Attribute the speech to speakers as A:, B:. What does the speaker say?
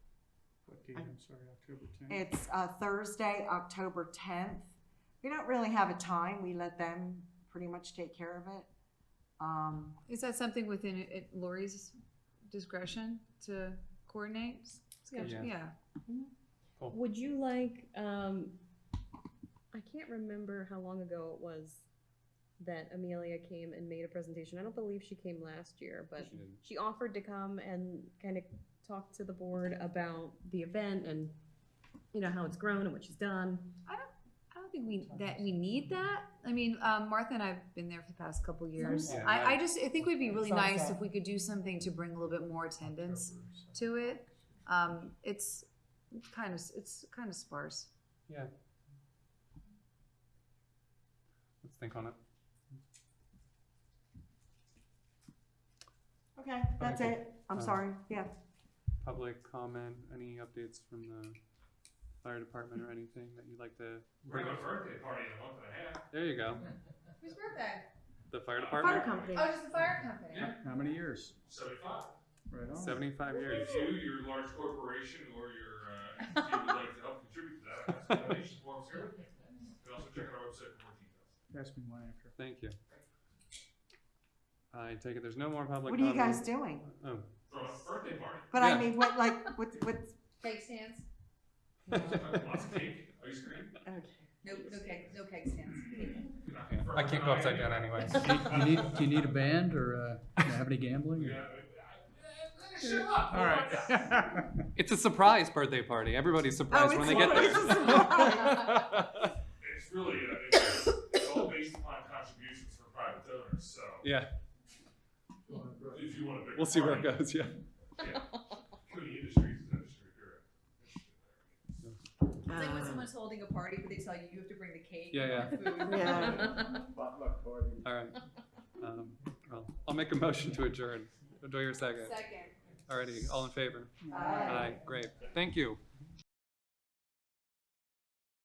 A: date? I'm sorry, October tenth?
B: It's uh, Thursday, October tenth. We don't really have a time. We let them pretty much take care of it. Um,
C: Is that something within it- Lori's discretion to coordinate?
D: Yeah.
C: Schedule- Yeah,
D: Would you like, um, I can't remember how long ago it was that Amelia came and made a presentation. I don't believe she came last year, but
E: She didn't.
D: she offered to come and kind of talk to the board about the event and, you know, how it's grown and what she's done.
C: I don't think we, that we need that. I mean, um, Martha and I have been there for the past couple years.
E: Yeah,
C: I, I
E: right.
C: just, I think it would be really
F: Sounds
C: nice
F: good.
C: if we could do something to bring a little bit more attendance to it. Um, it's kind of, it's kind of sparse.
E: Yeah. Let's think on it.
B: okay, that's it. I'm
E: Um,
B: sorry. Yeah.
E: Public comment, any updates from the fire department or anything that you'd like to?
G: We're having a birthday party in a month and a half.
E: There you go.
H: Whose birthday?
E: The fire
D: Fire
E: department,
D: company.
H: Oh, just the fire company.
G: Yeah.
A: How many years?
G: Seventy-five.
A: Right on.
E: seventy-five years.
G: If you, your large corporation, or your uh, entity would like to help contribute to that, ask the donations forms here. You can also check out our website for more details.
A: Ask me one after.
E: Thank you. I take it there's no more public
B: What are you
E: comment?
B: guys doing?
E: Oh,
G: Throw a birthday party.
B: But
E: Yeah.
B: I mean, what like what what?
H: Cake stands?
E: Oh.
G: Lots of cake, ice cream.
H: No, no cake, no cake stands.
E: I can't go upside down anyway.
F: Do you need, do you need a band or, uh, have any gambling?
G: Yeah,
F: or-
G: I- I- Shut up.
A: All right.
E: It's a surprise birthday party. Everybody's surprised
B: Oh,
E: when
B: it's
E: they get
B: always a
E: there.
G: It's really, uh, it's, it's all based upon contributions from private donors, so
E: Yeah,
G: if you want to.
E: we'll see where it goes, yeah.
G: Community industries is industry here.
H: It's like
B: uh,
H: when someone's holding a party, but they tell you you have to bring the cake.
E: Ah. Yeah, yeah.
H: food.
B: Yeah.
E: All right. Um, well, I'll make a motion to adjourn. Do your second.
H: Second.
E: Alrighty, all in favor?
B: Aye.
E: Great. Thank you.